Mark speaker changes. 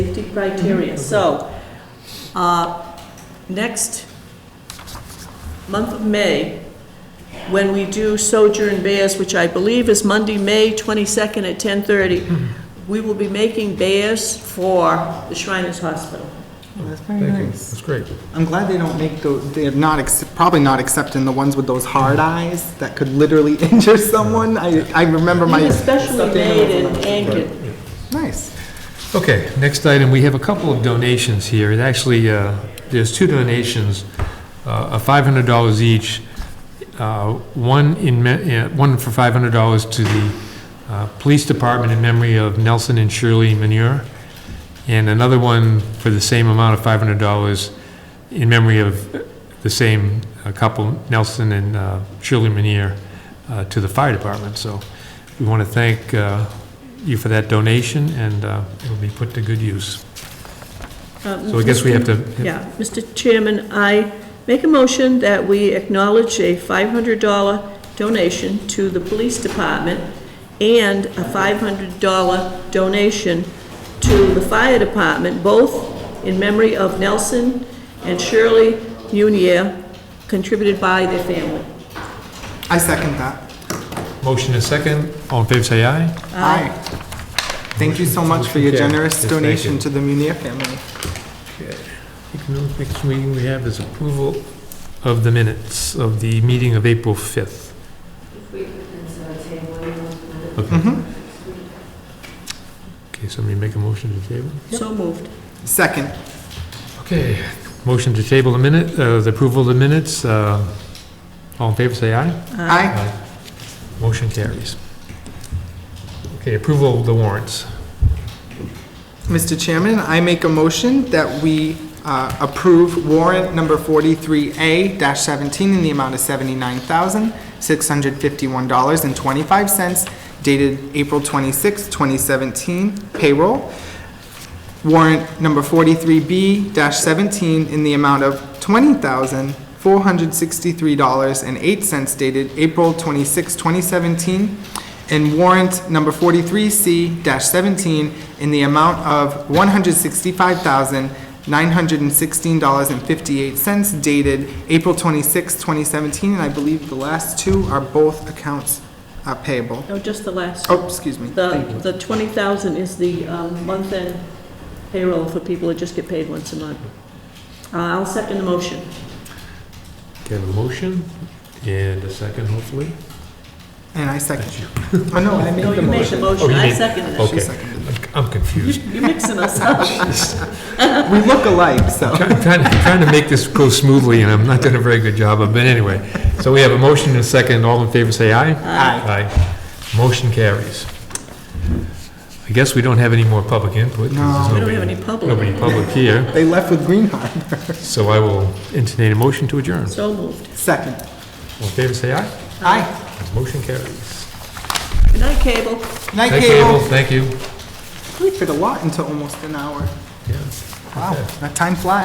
Speaker 1: criteria.
Speaker 2: Mm-hmm.
Speaker 1: So, uh, next month of May, when we do Sojourn Bears, which I believe is Monday, May 22nd at 10:30,
Speaker 2: Mm-hmm.
Speaker 1: we will be making bears for the Shriners Hospital.
Speaker 2: That's very
Speaker 3: Thank you.
Speaker 2: nice.
Speaker 3: That's great.
Speaker 2: I'm glad they don't make the, they're not, ex- probably not accepting the ones with those hard eyes that could literally injure someone. I, I remember my.
Speaker 1: Especially
Speaker 2: stuffed
Speaker 1: made and
Speaker 2: animals when I was a
Speaker 1: anchored.
Speaker 2: kid. Nice.
Speaker 3: Okay, next item, we have a couple of donations here. It actually, uh, there's two donations, uh, of $500 each, uh, one in, me- uh, one for $500 to the uh, Police Department in memory of Nelson and Shirley Manure, and another one for the same amount of $500 in memory of the same uh, couple, Nelson and uh, Shirley Manure, uh, to the Fire Department. So we want to thank uh, you for that donation, and uh, it'll be put to good use. So I guess we have to,
Speaker 1: Yeah, Mr. Chairman, I make a motion that we acknowledge a $500 donation to the police department and a $500 donation to the fire department, both in memory of Nelson and Shirley Munier, contributed by their family.
Speaker 2: I second that.
Speaker 3: motion is second, all in favor say aye.
Speaker 2: Aye. Thank you so much for your
Speaker 3: Motion carried.
Speaker 2: generous
Speaker 3: Yes, thank
Speaker 2: donation
Speaker 3: you.
Speaker 2: to the Munir family.
Speaker 3: I think the next meeting we have is approval of the minutes of the meeting of April 5th. Okay. Mm-hmm. Okay, somebody make a motion to table?
Speaker 1: So moved.
Speaker 2: Second,
Speaker 3: Okay, motion to table the minute, uh, the approval of the minutes, uh, all in favor, say aye.
Speaker 2: aye.
Speaker 3: Motion carries. Okay, approval of the warrants.
Speaker 2: Mr. Chairman, I make a motion that we uh, approve warrant number 43A-17 in the amount of $79,651.25 dated April 26, 2017 payroll. Warrant number 43B-17 in the amount of $20,463.08 dated April 26, 2017. And warrant number 43C-17 in the amount of $165,916.58 dated April 26, 2017. And I believe the last two are both accounts uh, payable.
Speaker 1: No, just the last.
Speaker 2: Oh, excuse me.
Speaker 1: The, the 20,000 is the um, month-end payroll for people who just get paid once a month. Uh, I'll second the motion.
Speaker 3: Okay, I have a motion and a second, hopefully.
Speaker 2: And I second. Oh, no, I made
Speaker 1: No,
Speaker 2: the
Speaker 1: you made the
Speaker 2: motion.
Speaker 3: Oh,
Speaker 1: motion,
Speaker 3: you
Speaker 1: I
Speaker 3: made-
Speaker 1: seconded it.
Speaker 2: She
Speaker 3: Okay,
Speaker 2: seconded.
Speaker 3: I'm confused.
Speaker 1: You're mixing us up.
Speaker 2: We look alike, so.
Speaker 3: Try- Trying, trying to make this go smoothly, and I'm not doing a very good job of, it, but anyway. So we have a motion and a second, all in favor say aye.
Speaker 2: Aye.
Speaker 3: Aye. Motion carries. I guess we don't have any more public input.
Speaker 2: No.
Speaker 3: 'cause there's
Speaker 1: We don't have
Speaker 3: nobody-
Speaker 1: any public.
Speaker 3: Nobody public here,
Speaker 2: They left with Green Harbor.
Speaker 3: so I will entertain a motion to adjourn.
Speaker 1: So moved.
Speaker 2: Second.
Speaker 3: All in favor say aye.
Speaker 2: Aye.
Speaker 3: Motion carries.
Speaker 1: Good night, Cable.
Speaker 2: Night,
Speaker 3: Thank you, Abel,
Speaker 2: Cable.
Speaker 3: thank you.
Speaker 2: We fit a lot into almost an hour.
Speaker 3: Yeah.
Speaker 2: Wow,
Speaker 3: Okay.
Speaker 2: that time flies.